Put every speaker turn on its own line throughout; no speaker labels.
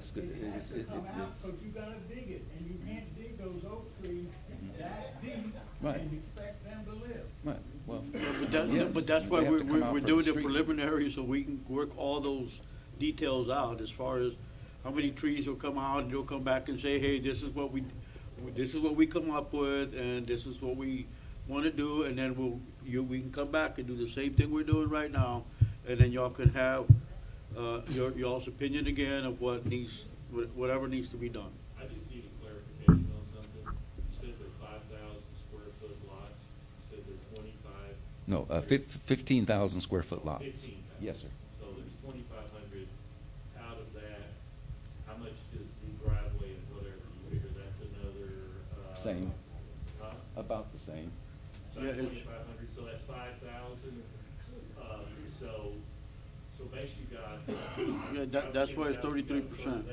the, it's,
to
it-
come out,
it's,
but you gotta dig it, and you can't dig those oak trees that deep
Right.
and expect them to live.
right, well,
But that,
yes,
but that's why
they have
we're,
to come
we're
out
we're
for the
doing the
street.
preliminary, so we can work all those details out as far as how many trees will come out, and they'll come back and say, hey, this is what we, this is what we come up with, and this is what we wanna do, and then we'll, you, we can come back and do the same thing we're doing right now, and then y'all can have, uh, your, y'all's opinion again of what needs, wha- whatever needs to be done.
I just need a clarification on something. You said they're five thousand square foot lots, you said they're twenty-five,
No, uh, fif- fifteen thousand square foot lots.
fifteen.
Yes, sir.
So there's twenty-five hundred. Out of that, how much does the driveway and whatever, you figure that's another, uh?
Same.
Huh?
About the same.
So
Yeah,
that's
it's-
twenty-five hundred, so that's five thousand. Um, so, so basically you got.
Yeah, that- that's why it's 33%.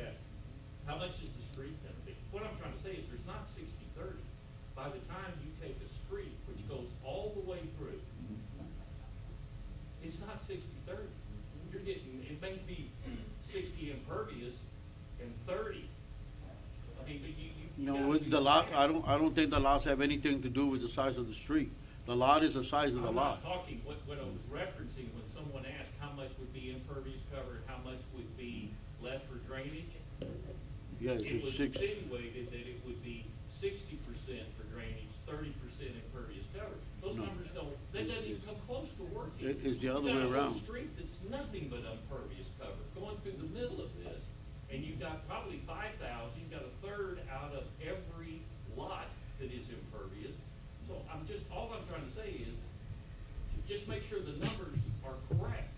How much is the street then? Be- What I'm trying to say is there's not sixty thirty. By the time you take a street, which goes all the way through, it's not sixty thirty. You're getting, it may be sixty impervious and thirty. I mean, but you, you.
No,
gotta
with
do
the lot,
math.
I don't, I don't think the lots have anything to do with the size of the street. The lot is the size of the
I'm
lot.
not talking, what, what I was referencing, when someone asked how much would be impervious cover, and how much would be left for drainage,
Yeah, it's
it
just
was
six,
insinuated that it would be sixty percent for drainage, thirty percent impervious cover. Those
No.
numbers don't, that doesn't even come close to working.
It- it's the other way
You've got a
around.
whole street that's nothing but impervious cover, going through the middle of this, and you've got probably five thousand, you've got a third out of every lot that is impervious. So I'm just, all I'm trying to say is, just make sure the numbers are correct,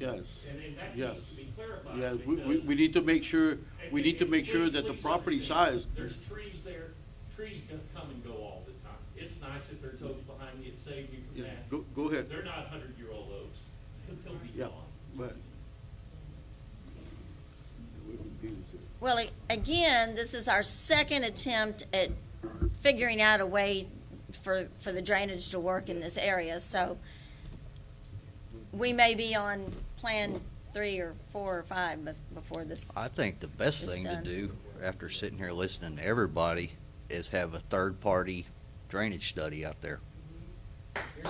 yes.
and then that
Yes.
needs to be clarified.
Yeah, we, we,
because-
we need to make sure, we
and-
need to
and
make sure
please-
that the
please
property
understand,
size,
There's trees there, trees co- come and go all the time. It's nice if there's oaks behind me, it saved me from
yeah,
that.
go, go ahead,
They're not hundred-year-old oaks, they'll be
yeah,
gone.
but.
Well, a- again, this is our second attempt at figuring out a way for, for the drainage to work in this area, so we may be on plan three or four or five bef- before this.
I think the best
It's
thing to
done.
do, after sitting here listening to everybody, is have a third-party drainage study out there.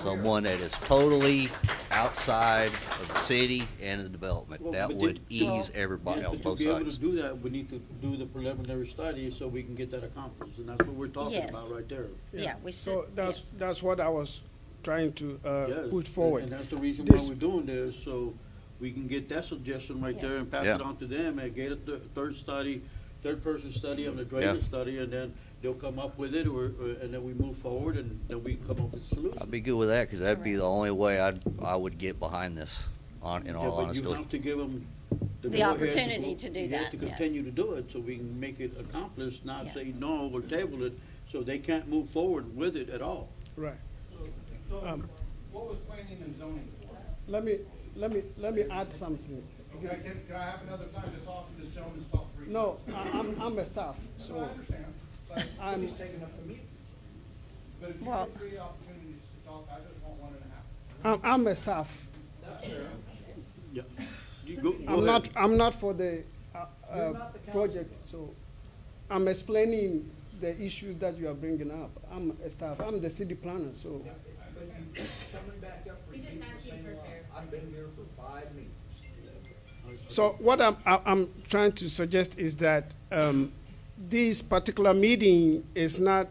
Someone that is totally outside of the city and the development.
Well,
That
but
would
did-
ease
Yeah,
everybody on
to
both
be able
sides.
to do that, we need to do the preliminary study so we can get that accomplished, and that's what we're talking
Yes.
about right there.
Yeah, we
So
should,
that's,
yes.
that's what I was trying to uh,
Yes,
put
And
forward.
that's the reason why
This-
we're doing this, so we can get that suggestion right there
Yes.
and pass
Yeah.
it on to them and get a thir- third study, third person study on the drainage
Yeah.
study, and then they'll come up with it, or, or- and then we move forward and then we come up with a
I'd
solution.
be good with that, because that'd be the only way I'd, I would get behind this, on,
Yeah,
in
But
all
you
honesty.
have to give them.
The opportunity to do that,
You have
yes.
to continue to do it, so we can make it accomplished, not
Yeah.
say no or table it, so they can't move forward with it at all.
Right.
So,
Um,
what was planning and zoning for?
Let me, let me, let me add something.
Okay, can, can I have another time to talk to this gentleman, stop for
No, I- I'm, I'm a staff,
So I
so
understand, but
I'm-
he's taking up the meeting. But if you
Well-
get three opportunities to talk, I just want one and a half.
I'm, I'm a staff.
That's fair.
Yeah. You go- go
I'm not,
ahead.
I'm not for the uh,
You're
uh,
not the council.
project, so I'm explaining the issues that you are bringing up. I'm a staff, I'm the city planner, so
But you, coming back up for
We
you,
just have to
the
be
same law.
prepared.
I've been here for five meetings.
So what I'm, I- I'm trying to suggest is that um, this particular meeting is not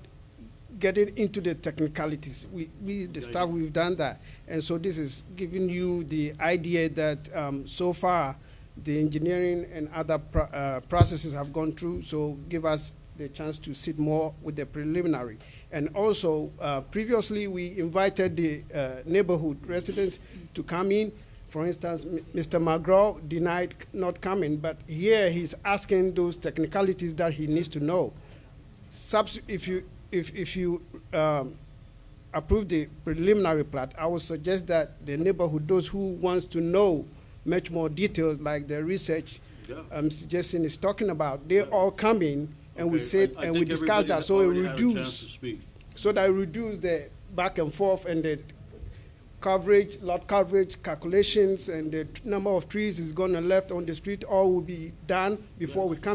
getting into the technicalities. We, we, the staff, we've done that. And so this is giving you the idea that um, so far, the engineering and other pro- uh, processes have gone through, so give us the chance to sit more with the preliminary. And also, uh, previously, we invited the uh, neighborhood residents to come in. For instance, M- Mr. McGraw denied c- not coming, but here he's asking those technicalities that he needs to know. Subs- if you if if you um, approve the preliminary plat, I would suggest that the neighborhood, those who wants to know much more details, like the research
Yeah.
I'm suggesting is talking about, they all come in and we
Okay,
sit
I- I
and we
think
discuss
everybody
that,
has
so it
already had a chance to
reduce,
speak.
so that reduce the back and forth and the coverage, lot coverage calculations and the t- number of trees is gonna left on the street, all will be done before we come